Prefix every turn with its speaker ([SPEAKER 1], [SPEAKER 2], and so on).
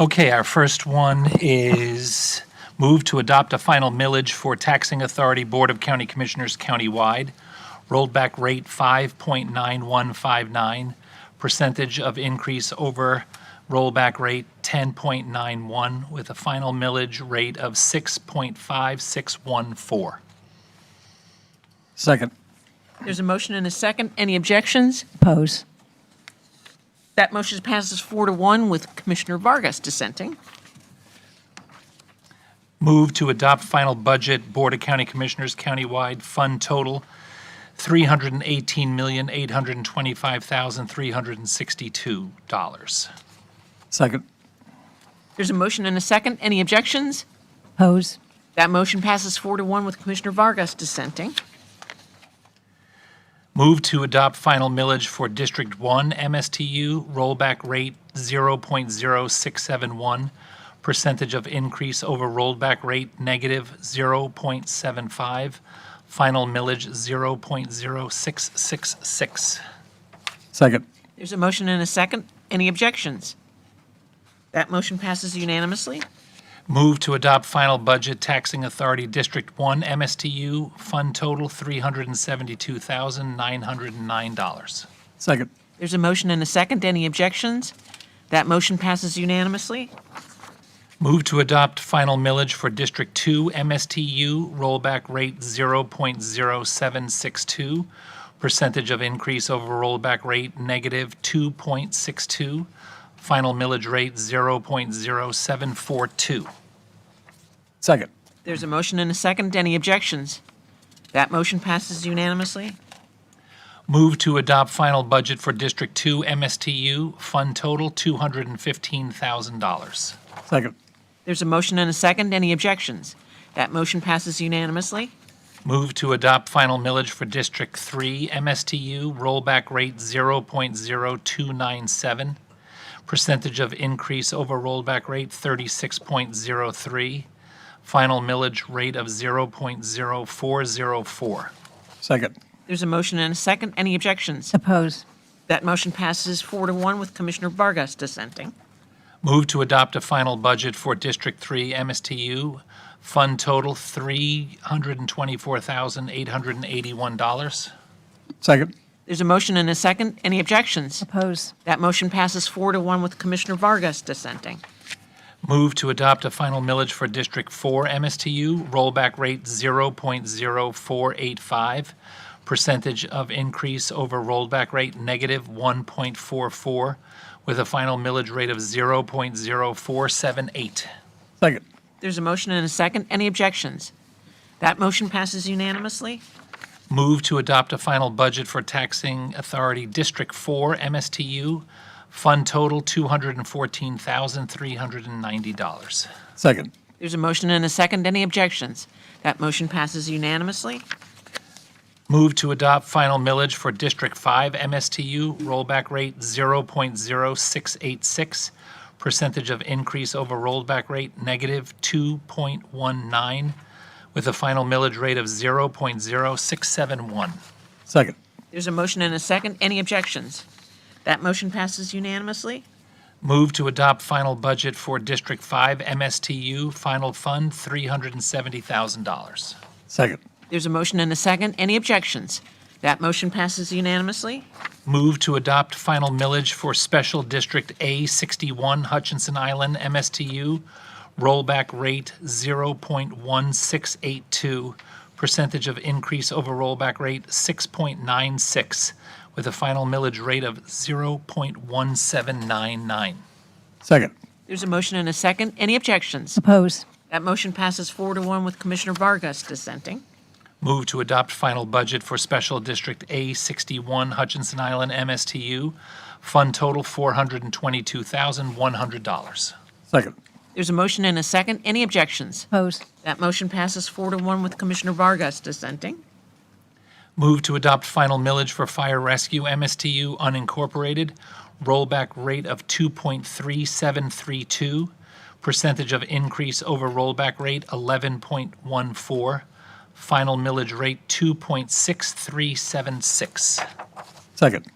[SPEAKER 1] Okay, our first one is move to adopt a final millage for taxing authority Board of County Commissioners countywide, rolled back rate 5.9159, percentage of increase over rollback rate 10.91, with a final millage rate of 6.5614.
[SPEAKER 2] Second.
[SPEAKER 3] There's a motion and a second. Any objections?
[SPEAKER 4] Oppose.
[SPEAKER 3] That motion passes four to one with Commissioner Vargas dissenting.
[SPEAKER 1] Move to adopt final budget, Board of County Commissioners countywide, fund total $318,825,362.
[SPEAKER 2] Second.
[SPEAKER 3] There's a motion and a second. Any objections?
[SPEAKER 4] Oppose.
[SPEAKER 3] That motion passes four to one with Commissioner Vargas dissenting.
[SPEAKER 1] Move to adopt final millage for District 1 MSTU, rollback rate 0.0671, percentage of increase over rollback rate negative 0.75, final millage 0.0666.
[SPEAKER 2] Second.
[SPEAKER 3] There's a motion and a second. Any objections? That motion passes unanimously.
[SPEAKER 1] Move to adopt final budget taxing authority District 1 MSTU, fund total $372,909.
[SPEAKER 2] Second.
[SPEAKER 3] There's a motion and a second. Any objections? That motion passes unanimously.
[SPEAKER 1] Move to adopt final millage for District 2 MSTU, rollback rate 0.0762, percentage of increase over rollback rate negative 2.62, final millage rate 0.0742.
[SPEAKER 2] Second.
[SPEAKER 3] There's a motion and a second. Any objections? That motion passes unanimously.
[SPEAKER 1] Move to adopt final budget for District 2 MSTU, fund total $215,000.
[SPEAKER 2] Second.
[SPEAKER 3] There's a motion and a second. Any objections? That motion passes unanimously.
[SPEAKER 1] Move to adopt final millage for District 3 MSTU, rollback rate 0.0297, percentage of increase over rollback rate 36.03, final millage rate of 0.0404.
[SPEAKER 2] Second.
[SPEAKER 3] There's a motion and a second. Any objections?
[SPEAKER 4] Oppose.
[SPEAKER 3] That motion passes four to one with Commissioner Vargas dissenting.
[SPEAKER 1] Move to adopt a final budget for District 3 MSTU, fund total $324,881.
[SPEAKER 2] Second.
[SPEAKER 3] There's a motion and a second. Any objections?
[SPEAKER 4] Oppose.
[SPEAKER 3] That motion passes four to one with Commissioner Vargas dissenting.
[SPEAKER 1] Move to adopt a final millage for District 4 MSTU, rollback rate 0.0485, percentage of increase over rollback rate negative 1.44, with a final millage rate of 0.0478.
[SPEAKER 2] Second.
[SPEAKER 3] There's a motion and a second. Any objections? That motion passes unanimously.
[SPEAKER 1] Move to adopt a final budget for taxing authority District 4 MSTU, fund total $214,390.
[SPEAKER 2] Second.
[SPEAKER 3] There's a motion and a second. Any objections? That motion passes unanimously.
[SPEAKER 1] Move to adopt final millage for District 5 MSTU, rollback rate 0.0686, percentage of increase over rollback rate negative 2.19, with a final millage rate of 0.0671.
[SPEAKER 2] Second.
[SPEAKER 3] There's a motion and a second. Any objections? That motion passes unanimously.
[SPEAKER 1] Move to adopt final budget for District 5 MSTU, final fund $370,000.
[SPEAKER 2] Second.
[SPEAKER 3] There's a motion and a second. Any objections? That motion passes unanimously.
[SPEAKER 1] Move to adopt final millage for Special District A61 Hutchinson Island MSTU, rollback rate 0.1682, percentage of increase over rollback rate 6.96, with a final millage rate of 0.1799.
[SPEAKER 2] Second.
[SPEAKER 3] There's a motion and a second. Any objections?
[SPEAKER 4] Oppose.
[SPEAKER 3] That motion passes four to one with Commissioner Vargas dissenting.
[SPEAKER 1] Move to adopt final budget for Special District A61 Hutchinson Island MSTU, fund total $422,100.
[SPEAKER 2] Second.
[SPEAKER 3] There's a motion and a second. Any objections?
[SPEAKER 4] Oppose.
[SPEAKER 3] That motion passes four to one with Commissioner Vargas dissenting.
[SPEAKER 1] Move to adopt final millage for fire rescue MSTU unincorporated, rollback rate of 2.3732, percentage of increase over rollback rate 11.14, final millage rate 2.6376.
[SPEAKER 2] Second.